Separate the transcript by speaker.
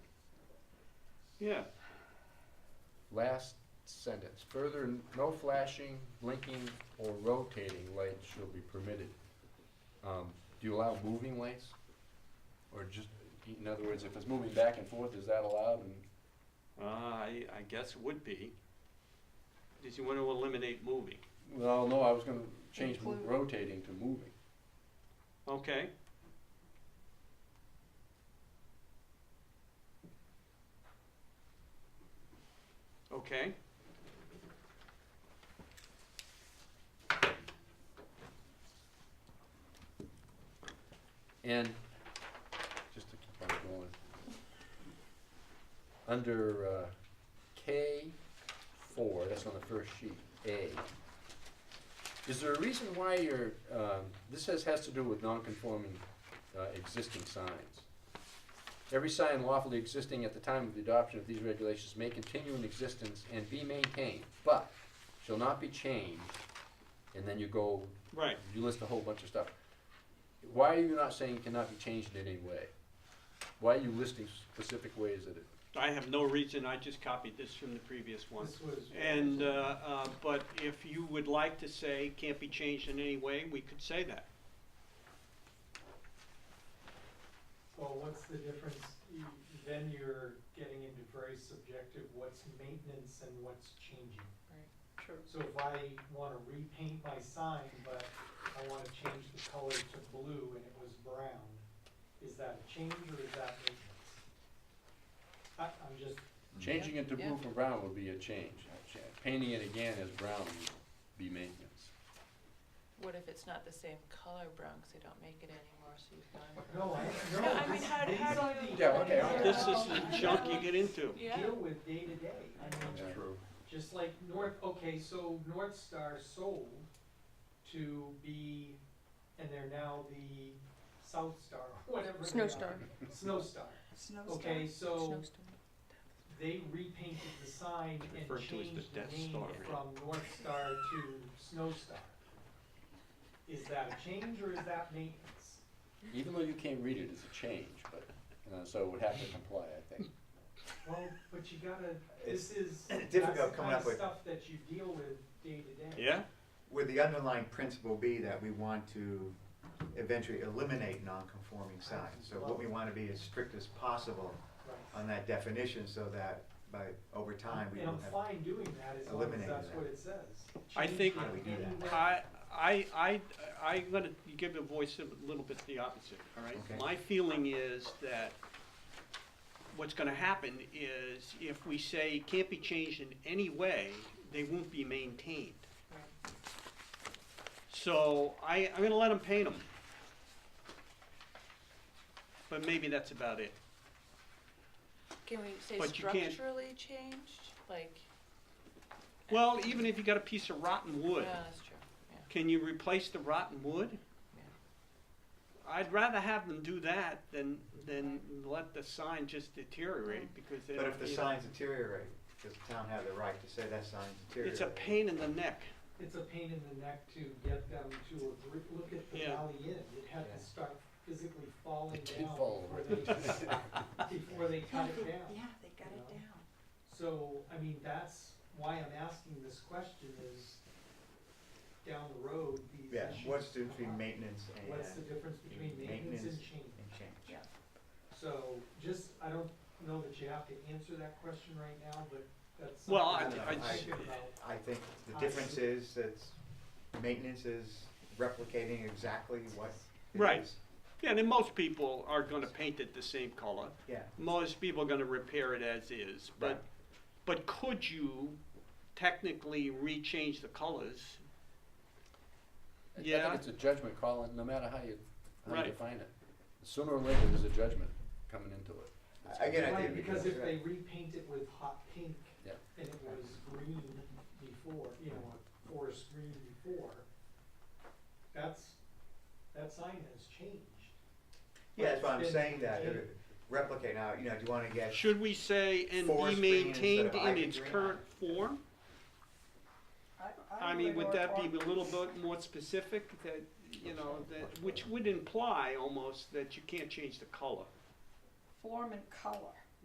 Speaker 1: Yeah.
Speaker 2: Last sentence, further, n- no flashing, blinking, or rotating lights shall be permitted. Um, Do you allow moving lights? Or just, in other words, if it's moving back and forth, is that allowed? And
Speaker 1: Uh, I, I guess would be. Did you want to eliminate moving?
Speaker 2: Well, no, I was gonna change mo-
Speaker 3: Include.
Speaker 2: rotating to moving.
Speaker 1: Okay. Okay.
Speaker 2: And, just to keep on going, under uh, K four, that's on the first sheet, A. Is there a reason why you're, um, this has, has to do with non-conforming uh, existing signs? Every sign lawfully existing at the time of the adoption of these regulations may continue in existence and be maintained, but shall not be changed, and then you go
Speaker 1: Right.
Speaker 2: you list a whole bunch of stuff. Why are you not saying it cannot be changed in any way? Why are you listing specific ways that it?
Speaker 1: I have no reason, I just copied this from the previous one.
Speaker 4: This was.
Speaker 1: And, uh, uh, but if you would like to say can't be changed in any way, we could say that.
Speaker 4: Well, what's the difference? You- Then you're getting into very subjective, what's maintenance and what's changing.
Speaker 3: True.
Speaker 4: So if I wanna repaint my sign, but I wanna change the color to blue and it was brown, is that a change or is that maintenance? I, I'm just,
Speaker 2: Changing it to
Speaker 3: Yeah.
Speaker 2: blue from brown would be Mm-hmm. a change. Painting it again as brown would be maintenance.
Speaker 3: What if it's not the same color brown, because they don't make it anymore, so you've gone.
Speaker 4: no, I,
Speaker 3: I
Speaker 4: no,
Speaker 3: mean,
Speaker 4: this,
Speaker 3: how do-
Speaker 4: these
Speaker 3: how
Speaker 4: are
Speaker 3: do you-
Speaker 4: the.
Speaker 2: Yeah, okay, okay.
Speaker 1: This is the junk you get into.
Speaker 3: Yeah,
Speaker 4: Deal with day to day. I mean,
Speaker 2: True.
Speaker 4: Just like North, okay, so North Star sold to be, and they're now the South Star, whatever they
Speaker 5: Snow
Speaker 4: are.
Speaker 5: Star.
Speaker 4: Snow Star. Okay, so they repainted the sign
Speaker 1: It's
Speaker 4: and
Speaker 1: referred to as the
Speaker 4: changed
Speaker 1: Death
Speaker 4: the name
Speaker 1: Star.
Speaker 4: from North Star to Snow Star. Is that a change or is that maintenance?
Speaker 2: Even though you can't read it, it's a change, but, uh, so it would have to comply, I think.
Speaker 4: Well, but you gotta, this is, that's the
Speaker 6: difficult coming
Speaker 4: kind of
Speaker 6: up with-
Speaker 4: stuff that you deal with day to day.
Speaker 1: Yeah?
Speaker 6: Would the underlying principle be that we want to eventually eliminate non-conforming signs? So what we want to be as strict as possible
Speaker 4: Right.
Speaker 6: on that definition so that by, over time, we
Speaker 4: And I'm
Speaker 6: don't have.
Speaker 4: fine doing that as long as
Speaker 6: eliminated
Speaker 4: that's
Speaker 6: that.
Speaker 4: what it says.
Speaker 1: I think-
Speaker 6: How do we do that?
Speaker 1: I, I, I, I'm gonna give the voice a little bit the opposite, all right?
Speaker 6: Okay.
Speaker 1: My feeling is that what's gonna happen is if we say it can't be changed in any way, they won't be maintained. So I, I'm gonna let them paint them. But maybe that's about it.
Speaker 3: can we say
Speaker 1: But you can't-
Speaker 3: structurally changed, like,
Speaker 1: Well, even if you got a piece of rotten
Speaker 3: no,
Speaker 1: wood,
Speaker 3: that's true,
Speaker 1: Can you replace the rotten wood?
Speaker 3: Yeah.
Speaker 1: I'd rather have them do that than, than let the sign just deteriorate because they
Speaker 6: But if
Speaker 1: don't,
Speaker 6: the
Speaker 1: you know,
Speaker 6: signs deteriorate, does the town have the right to say that sign's deteriorating?
Speaker 1: it's a pain in the neck.
Speaker 4: it's a pain in the neck to get them to agree, look at the
Speaker 1: Yeah.
Speaker 4: Valley Inn, it had
Speaker 6: Yeah.
Speaker 4: to start physically falling
Speaker 2: It did
Speaker 4: down
Speaker 2: fall
Speaker 4: before
Speaker 2: over.
Speaker 4: they, before they cut it down.
Speaker 3: they
Speaker 4: got it Yeah.
Speaker 3: down.
Speaker 4: So, I mean, that's why I'm asking this question is, down the road, these
Speaker 6: Yeah,
Speaker 4: issues.
Speaker 6: what's the
Speaker 4: come
Speaker 6: difference between
Speaker 4: up.
Speaker 6: maintenance and
Speaker 4: What's the difference between maintenance and
Speaker 6: Maintenance.
Speaker 4: change?
Speaker 6: and change?
Speaker 4: So, just, I don't know that you have to answer that question right now, but that's.
Speaker 1: Well,
Speaker 6: I-
Speaker 4: something
Speaker 6: I
Speaker 4: to
Speaker 6: just-
Speaker 4: think about.
Speaker 6: I think the difference is that maintenance is replicating exactly what it
Speaker 1: Right.
Speaker 6: is.
Speaker 1: Yeah, and most people are gonna paint it the same color.
Speaker 6: Yeah,
Speaker 1: Most people are gonna repair it as is,
Speaker 6: Right.
Speaker 1: but, but could you technically re-change the colors?
Speaker 2: I- I
Speaker 1: Yeah.
Speaker 2: think it's a judgment call, and no matter how you, how you
Speaker 1: Right.
Speaker 2: define it. Sooner or later, there's a judgment coming into it. It's
Speaker 6: I- I get it.
Speaker 4: Right,
Speaker 6: think
Speaker 4: because
Speaker 6: that's
Speaker 4: if they
Speaker 6: right.
Speaker 4: repaint it with hot pink
Speaker 2: Yeah.
Speaker 4: and it was green before, you know, a forest green before, that's, that sign has changed.
Speaker 6: yeah, that's why I'm
Speaker 4: It's been
Speaker 6: saying that,
Speaker 4: changed.
Speaker 6: replicate now, you know, do you wanna get
Speaker 1: Should we say and be
Speaker 6: Forest green instead
Speaker 1: maintained
Speaker 6: of
Speaker 1: in
Speaker 6: ivy
Speaker 1: its
Speaker 6: green"?
Speaker 1: current form? I mean, would that be a little bit more specific, that, you know, that, which would imply almost that you can't change the color?
Speaker 7: Form and color.